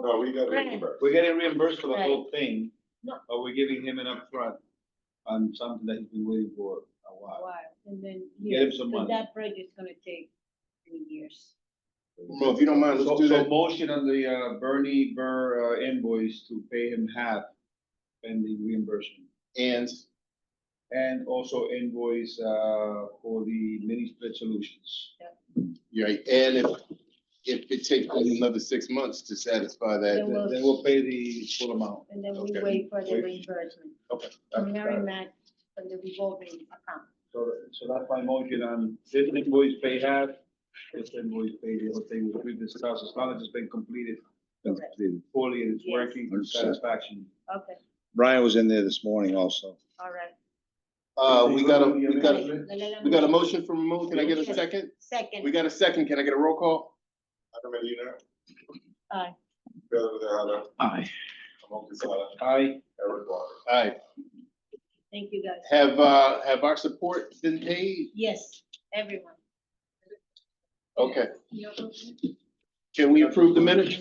No, we got Right. reimbursed. We're getting reimbursed for the whole thing, No. but we're giving him an upfront on something that he's been waiting for a a while. while, and then Get years, him some 'cause money. that project's gonna take three years. Well, if you don't mind, So, let's do so that. motion on the uh, Bernie Burr uh, invoice to pay him half pending reimbursement. And And also invoice uh, for the mini split solutions. You're Right, and if, if it takes another six months to satisfy Then that, Then we'll- then we'll pay the full amount. And then we Okay. wait for the Wait. reimbursement That's- uh, from Mary Mac from the revolving account. So, so that's my motion on this invoice pay half, this invoice pay the whole thing, which we discussed, as long as it's been completed Correct. fully and it's Yes. working to Understood. satisfaction. Okay, Brian was in there this morning also. all right. uh, we got a, we got a, Amendment? we got a motion from Ramon, can I get a Yes. second? We Second, got a second, can I get a roll call? Adam Medina. Aye. Pedro Tejada, Aye. Ramon Quesada, Aye, Eric Walker. Aye, thank you guys. have, uh, have our support been paid? Yes, everyone. Okay, can we approve the minutes?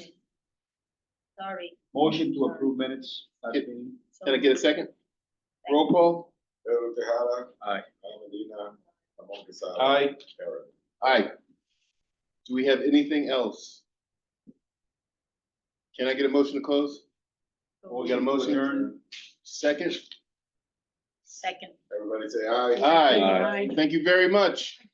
Sorry. motion to approve minutes, I Yep. think. So- Can I get a second? Roll call? Pedro Tejada. Aye. Ana Medina, Ramon Quesada. Aye, Eric. Aye. Do we have anything else? Can I get a motion to close? We got a Motion to motion, adjourn. second? Second. Everybody say aye. Aye. Aye. Thank you very much.